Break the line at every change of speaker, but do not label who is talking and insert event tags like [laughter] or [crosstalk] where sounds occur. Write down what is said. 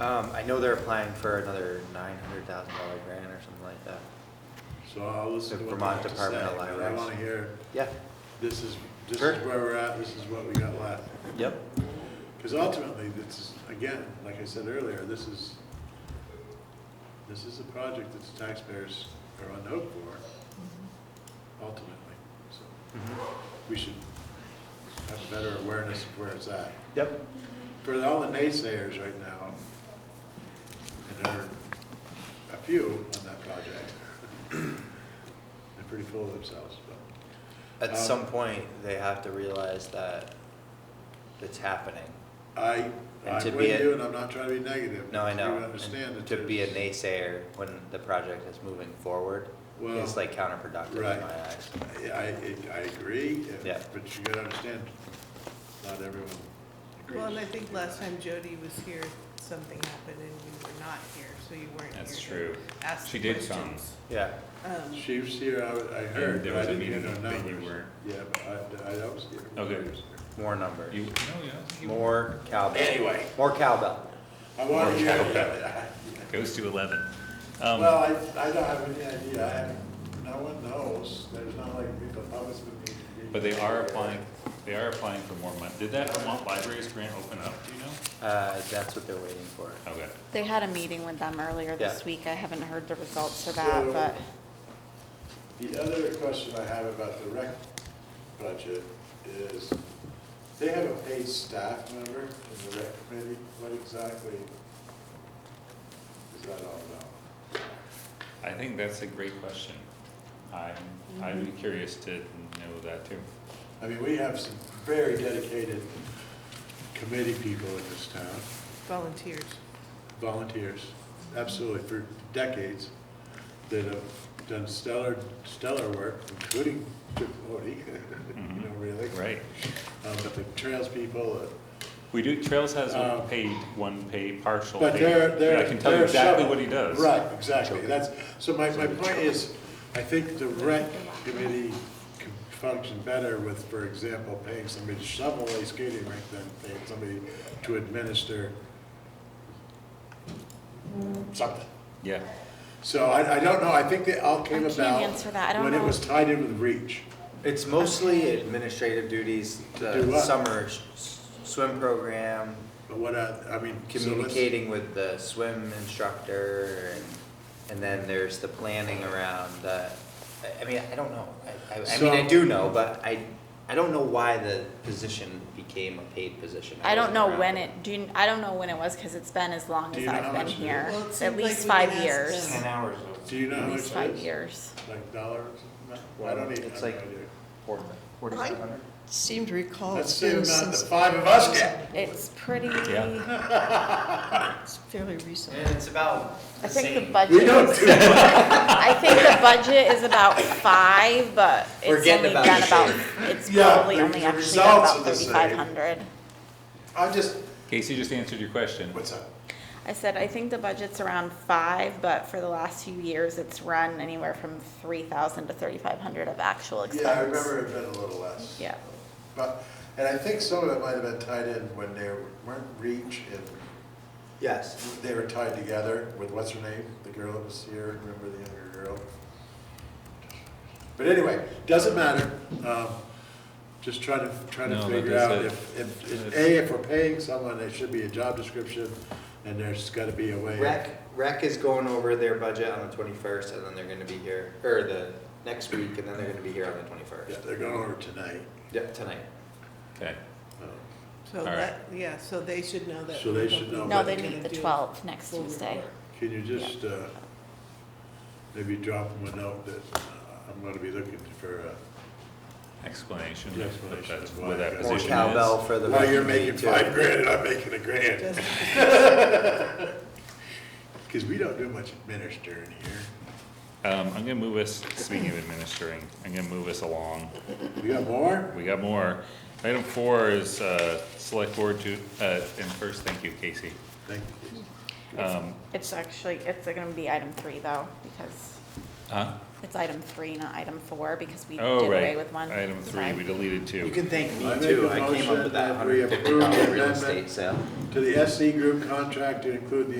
Um, I know they're applying for another nine hundred thousand dollar grant or something like that.
So I'll listen
The
to what they
Vermont
have to
Department
say,
of
but I
Libraries.
want to hear,
Yeah,
this is, this is
Sure.
where we're at, this is what we got left.
yep,
Because ultimately, this is, again, like I said earlier, this is, this is a project that the taxpayers are unhoped for, ultimately. So
Mm-hmm.
we should have a better awareness of where it's at.
yep.
For all the naysayers right now, and there are a few on that project, [clears throat] they're pretty full of themselves, but,
At
Um,
some point, they have to realize that it's happening.
I,
And
I'm
to be
with
a-
you, and I'm not trying to be negative.
No, I
You
know. and
understand that
To be a
there's-
naysayer when the project is moving forward
Well,
is like counterproductive in
right.
my eyes.
I, I- I agree, uh,
Yeah.
but you gotta understand, not everyone agrees.
Well, and I think last time Jody was here, something happened and you were not here, so you weren't here.
That's
to
true.
Ask
She
the
did some.
questions.
Yeah,
Um,
She was here, I, I heard,
there
but I
was a
didn't hear no
meeting that you
numbers.
were-
Yeah, but I, I I was here.
Okay.
I was here.
more numbers,
You, no, yeah, I think you-
more cowbell.
Anyway.
More cowbell.
I want to hear,
Or-
yeah,
goes to eleven.
yeah.
Um,
[laughs] well, I, I don't have any idea, I haven't, no one knows, there's not like, the public's been meeting.
But they are applying, they are applying for more money. Did that Vermont Libraries grant open up, do you know?
Uh, that's what they're waiting for.
Okay.
They had a meeting with them earlier this
Yeah.
week. I haven't heard the results of
So-
that, but
The other question I have about the rec budget is, they have a paid staff member in the rec committee, what exactly is that all about?
I think that's a great question. I'm, I'd
Mm-hmm.
be curious to know that too.
I mean, we have some very dedicated committee people in this town,
Volunteers.
volunteers, absolutely, for decades, that have done stellar, stellar work, including [laughs] Chip Cody, you know, really.
Right.
Um, But the trails people, uh,
We do, Trails has a
Um,
paid, one pay, partial
But
paid.
they're,
but
they're.
I can tell you
they're
exactly
shovel-
what he does.
Right, exactly, that's, so my, my point is, I think the rec committee could function better with, for example, paying somebody to shovel a skating rink than paying somebody to administer something.
Yeah.
So I, I don't know, I think they all came
I
about.
can't answer that. I don't
When it
know.
was tied in with reach,
It's mostly administrative duties,
do
the
what?
summer s- swim program,
but what I, I mean. so let's-
communicating with the swim instructor, and, and then there's the planning around the, I- I mean, I don't know. I, I, I mean, I
So-
do know, but I, I don't know why the position became a paid position.
I don't
wasn't
know
around.
when it, do you, I don't know when it was because it's been as long
Do
as
you know how
I've been
much it is?
here.
Well, it seems
At
like
least
we can
five
ask
years.
them.
hours
Do you know how
At
much
least
it
five
is?
years.
Like dollars? I don't even,
It's
I have no
like-
idea.
of.
I seem to
Oh,
recall
That's
it's
the
been
amount the
since,
five of us get.
It's pretty,
Yeah.
I
it's fairly recent.
And it's about the
think the
same.
We
budget,
don't
is-
do much.
I think the budget is about five, but
We're
it's
getting
only
about
been
the
about,
same.
it's
Yeah,
probably
the-
only
the
actually been
results
about
are the same.
thirty-five hundred.
I'm just,
Casey just answered your question.
what's up?
I said, I think the budget's around five, but for the last few years, it's run anywhere from three thousand to thirty-five hundred of actual expense.
Yeah, I remember it had been a little less.
Yeah.
But, and I think some of it might have been tied in when they weren't reach and
Yes,
they were tied together with what's her name? The girl that was here, remember the younger girl? But anyway, doesn't matter. Um, Just trying to, trying
No,
to
but
figure
is
out
it-
if, if, if,
is-
A, if we're paying someone, there should be a job description and there's gotta be a way.
rec, rec is going over their budget on the twenty-first, and then they're gonna be here, or the next week, and then they're gonna be here on the
Yeah,
twenty-first.
they're going over tonight.
Yeah, tonight.
Okay.
Um,
So
All
that, yeah, so they should know that.
So they should know
No,
what
they
they're
meet the twelfth next Tuesday.
Can you just, uh, maybe drop them a note that uh, I'm gonna be looking for, uh,
Explanation.
The
of
explanation
that-
of why
What
I
that
got-
More
position is.
cowbell for the.
well, you're
rec committee
making
too.
five grand, and I'm making a grand.
Just-
Because we don't do much administering here.
Um, I'm gonna move us, speaking of administering, I'm gonna move us along.
We got more?
We got more. Item four is, uh, select board to, uh, and first, thank you, Casey.
Thank you.
Um,
It's actually, it's gonna be item three though, because
huh?
it's item three, not item four, because we did
Oh,
away
right.
with one.
Item three,
Sorry.
we deleted two.
You can thank
I
me
make
too,
a
I came up
motion
with
that
that
we
hundred
approve
fifty dollar
the
real
amendment.
estate sale.
To to the SC group contract to include the